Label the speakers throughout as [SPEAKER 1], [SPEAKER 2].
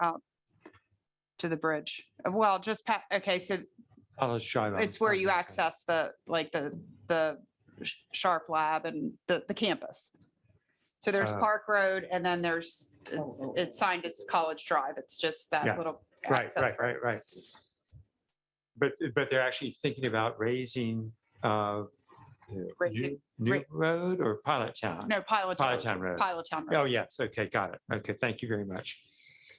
[SPEAKER 1] out to the bridge. Well, just pa, okay, so
[SPEAKER 2] College Drive. I'm
[SPEAKER 1] it's where you
[SPEAKER 2] sorry.
[SPEAKER 1] access the, like, the, the Sh- Sharp Lab and the, the campus. So there's
[SPEAKER 2] Uh,
[SPEAKER 1] Park Road and then there's,
[SPEAKER 3] oh,
[SPEAKER 1] it's signed as College Drive. It's just
[SPEAKER 2] Yeah,
[SPEAKER 1] that little.
[SPEAKER 2] Right,
[SPEAKER 1] access
[SPEAKER 2] right,
[SPEAKER 1] road.
[SPEAKER 2] right, right. But, but they're actually thinking about raising uh,
[SPEAKER 1] Raising-
[SPEAKER 2] New
[SPEAKER 1] ra-
[SPEAKER 2] New Road or Pilot Town?
[SPEAKER 1] No, Pilot.
[SPEAKER 2] Pilot Town Road.
[SPEAKER 1] Pilot Town Road.
[SPEAKER 2] Oh, yes. Okay, got it. Okay, thank you very much.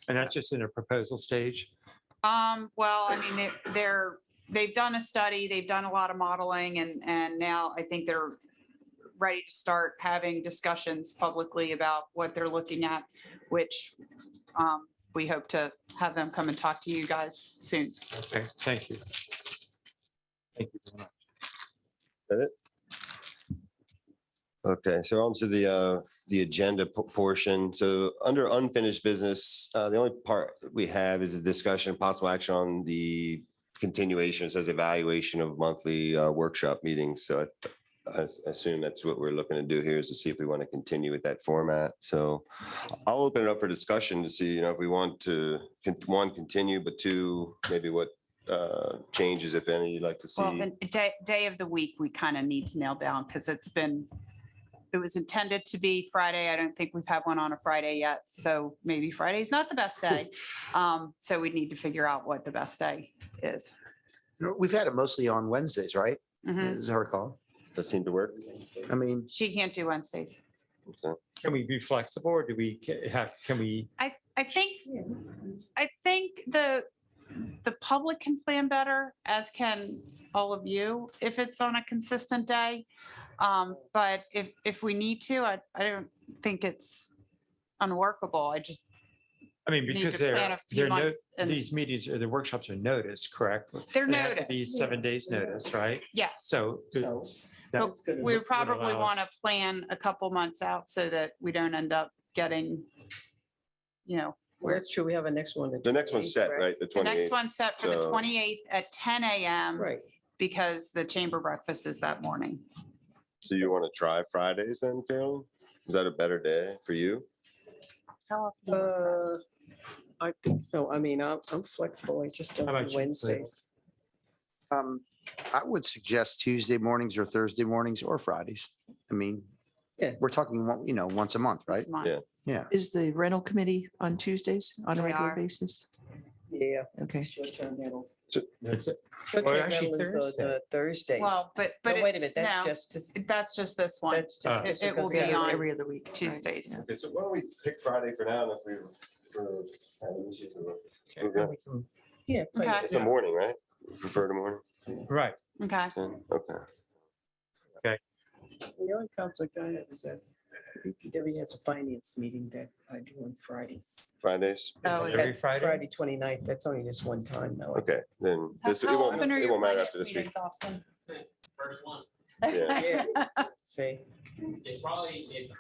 [SPEAKER 2] And that's just in a proposal stage.
[SPEAKER 1] Um, well, I mean, they- they're, they've done a study, they've done a lot of modeling and, and now I think they're ready to start having discussions publicly about what they're looking at, which um, we hope to have them come and talk to you guys soon.
[SPEAKER 2] Okay, thank you. Thank you. very much.
[SPEAKER 4] Okay, so on to the, uh, the agenda po- portion. So under unfinished business, uh, the only part that we have is a discussion, possible action on the continuation, it says evaluation of monthly uh, workshop meetings. So I- I s- assume that's what we're looking to do here is to see if we want to continue with that format. So I'll open it up for discussion to see, you know, if we want to, con- one, continue, but two, maybe what uh, changes, if any, you'd like to
[SPEAKER 1] Well,
[SPEAKER 4] see.
[SPEAKER 1] the day, day of the week, we kind of need to nail down because it's been, it was intended to be Friday. I don't think we've had one on a Friday yet. So maybe Friday's not the best day. Um, So we need to figure out what the best day is.
[SPEAKER 3] We've had it mostly on Wednesdays, right?
[SPEAKER 1] Mhm.
[SPEAKER 3] Is our call.
[SPEAKER 4] Does that seem to work?
[SPEAKER 3] I mean,
[SPEAKER 1] She can't do Wednesdays.
[SPEAKER 2] Can we be flexible or do we ca- have, can we?
[SPEAKER 1] I, I think, I think the, the public can plan better, as can all of you, if it's on a consistent day. Um, But if, if we need to, I, I don't think it's unworkable. I just
[SPEAKER 2] I mean,
[SPEAKER 1] need
[SPEAKER 2] because
[SPEAKER 1] to plan
[SPEAKER 2] they're,
[SPEAKER 1] a few
[SPEAKER 2] they're, no-
[SPEAKER 1] months. and
[SPEAKER 2] these meetings or the workshops are noticed, correct?
[SPEAKER 1] They're
[SPEAKER 2] They have to Be
[SPEAKER 1] noticed,
[SPEAKER 2] seven days notice, right?
[SPEAKER 1] yeah.
[SPEAKER 2] So the- that-
[SPEAKER 1] We
[SPEAKER 2] would
[SPEAKER 1] probably
[SPEAKER 2] allow
[SPEAKER 1] want to
[SPEAKER 2] us-
[SPEAKER 1] plan a couple months out so that we don't end up getting, you know,
[SPEAKER 5] Well, that's true. We have a next one.
[SPEAKER 4] The next one's set, right? The
[SPEAKER 1] the next
[SPEAKER 4] 28th.
[SPEAKER 1] one's set for the
[SPEAKER 4] so-
[SPEAKER 1] 28th at 10 AM.
[SPEAKER 5] Right.
[SPEAKER 1] because the chamber breakfast is that morning.
[SPEAKER 4] So you want to try Fridays then, Carolyn? Is that a better day for you?
[SPEAKER 5] Uh, I think so. I mean, I'm, I'm flexible. I just
[SPEAKER 2] How
[SPEAKER 5] don't
[SPEAKER 2] about
[SPEAKER 5] do
[SPEAKER 2] you, Lynn?
[SPEAKER 5] Wednesdays.
[SPEAKER 3] um, I would suggest Tuesday mornings or Thursday mornings or Fridays. I mean,
[SPEAKER 5] Yeah.
[SPEAKER 3] we're talking, one- you know, once a month, right?
[SPEAKER 4] Yeah.
[SPEAKER 3] Yeah.
[SPEAKER 6] Is the rental committee on Tuesdays on a
[SPEAKER 1] They
[SPEAKER 6] regular
[SPEAKER 1] are.
[SPEAKER 6] basis?
[SPEAKER 5] Yeah.
[SPEAKER 6] Okay.
[SPEAKER 5] Short-term rental.
[SPEAKER 2] That's it. Well,
[SPEAKER 5] Short-term
[SPEAKER 2] Oh, actually,
[SPEAKER 5] rental is on,
[SPEAKER 2] Thursday.
[SPEAKER 5] uh, Thursdays.
[SPEAKER 1] Well, but, but
[SPEAKER 5] No,
[SPEAKER 1] it-
[SPEAKER 5] wait a minute, that's
[SPEAKER 1] no.
[SPEAKER 5] just, this-
[SPEAKER 1] that's just this one.
[SPEAKER 5] that's
[SPEAKER 2] Uh,
[SPEAKER 5] just. this
[SPEAKER 1] It- it will
[SPEAKER 5] because
[SPEAKER 1] be
[SPEAKER 5] the
[SPEAKER 1] on-
[SPEAKER 5] other-
[SPEAKER 6] Every other week. right,
[SPEAKER 1] Tuesdays.
[SPEAKER 6] yeah.
[SPEAKER 4] Okay, so why don't we pick Friday for now if we.
[SPEAKER 2] Okay, we can-
[SPEAKER 5] Yeah. play
[SPEAKER 1] Okay.
[SPEAKER 5] it.
[SPEAKER 4] It's a morning, right? You Prefer the morning?
[SPEAKER 2] Right.
[SPEAKER 1] Okay.
[SPEAKER 4] Yeah, Okay.
[SPEAKER 5] The only conflict I have is that DPW has a finance meeting that I do on Fridays.
[SPEAKER 4] Fridays?
[SPEAKER 2] Is
[SPEAKER 1] Oh,
[SPEAKER 2] it
[SPEAKER 1] is
[SPEAKER 2] Every
[SPEAKER 5] That's
[SPEAKER 2] Friday?
[SPEAKER 5] Friday 29th. That's only just one time though.
[SPEAKER 4] Okay, then
[SPEAKER 1] How-
[SPEAKER 4] this, it
[SPEAKER 1] how
[SPEAKER 4] won't,
[SPEAKER 1] often are
[SPEAKER 4] it
[SPEAKER 1] your
[SPEAKER 4] won't matter
[SPEAKER 1] finance
[SPEAKER 4] after this week.
[SPEAKER 1] meetings, Austin?
[SPEAKER 7] first one.
[SPEAKER 4] Yeah.
[SPEAKER 5] Yeah. See,
[SPEAKER 7] It's probably, if- um,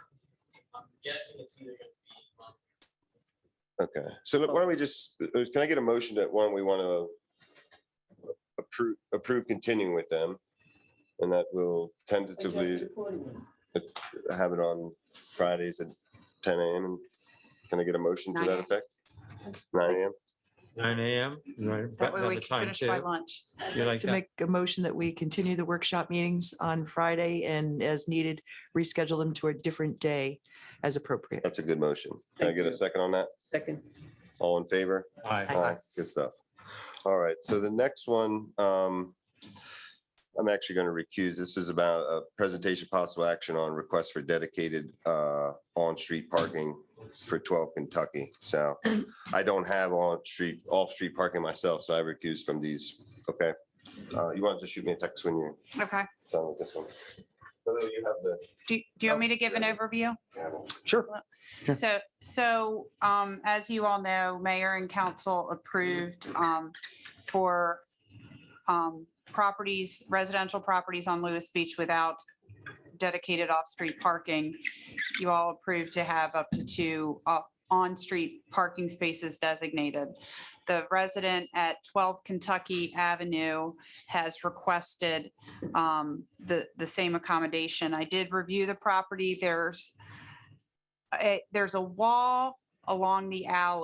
[SPEAKER 7] I'm guessing it's either gonna be um,
[SPEAKER 4] Okay, so look, why don't we just, uh, can I get a motion that one, we want to approve, approve continuing with them? And that will tentatively have it on Fridays at ten AM. and Can I get a motion to
[SPEAKER 1] 9
[SPEAKER 4] that
[SPEAKER 1] a.m.
[SPEAKER 4] effect? Nine AM?
[SPEAKER 2] Nine AM? You wanna
[SPEAKER 1] That
[SPEAKER 2] button
[SPEAKER 1] way
[SPEAKER 2] on
[SPEAKER 1] we
[SPEAKER 2] the
[SPEAKER 1] can
[SPEAKER 2] time
[SPEAKER 1] finish by
[SPEAKER 2] too?
[SPEAKER 1] lunch.
[SPEAKER 2] You like
[SPEAKER 6] To
[SPEAKER 2] that?
[SPEAKER 6] make a motion that we continue the workshop meetings on Friday and as needed, reschedule them to a different day as appropriate.
[SPEAKER 4] That's a good motion. Can I
[SPEAKER 5] Thank
[SPEAKER 4] get a
[SPEAKER 5] you.
[SPEAKER 4] second on that?
[SPEAKER 5] second,
[SPEAKER 4] All in favor?
[SPEAKER 2] Aye.
[SPEAKER 1] Aye.
[SPEAKER 4] Good stuff. All right, so the next one, um, I'm actually going to recuse. This is about a presentation possible action on request for dedicated uh, on-street parking for 12 Kentucky. So I don't have on-street, off-street parking myself, so I recuse from these. Okay? Uh, You want to shoot me a text when you're
[SPEAKER 1] Okay.
[SPEAKER 4] done with this one? Although you have the
[SPEAKER 1] Do, do you want me to give an overview?
[SPEAKER 3] Sure. Sure.
[SPEAKER 1] So, so um, as you all know, mayor and council approved um, for um, properties, residential properties on Lewis Beach without dedicated off-street parking. You all approved to have up to two uh, on-street parking spaces designated. The resident at 12 Kentucky Avenue has requested um, the, the same accommodation. I did review eh, the property. There's a- there's a wall along the alley.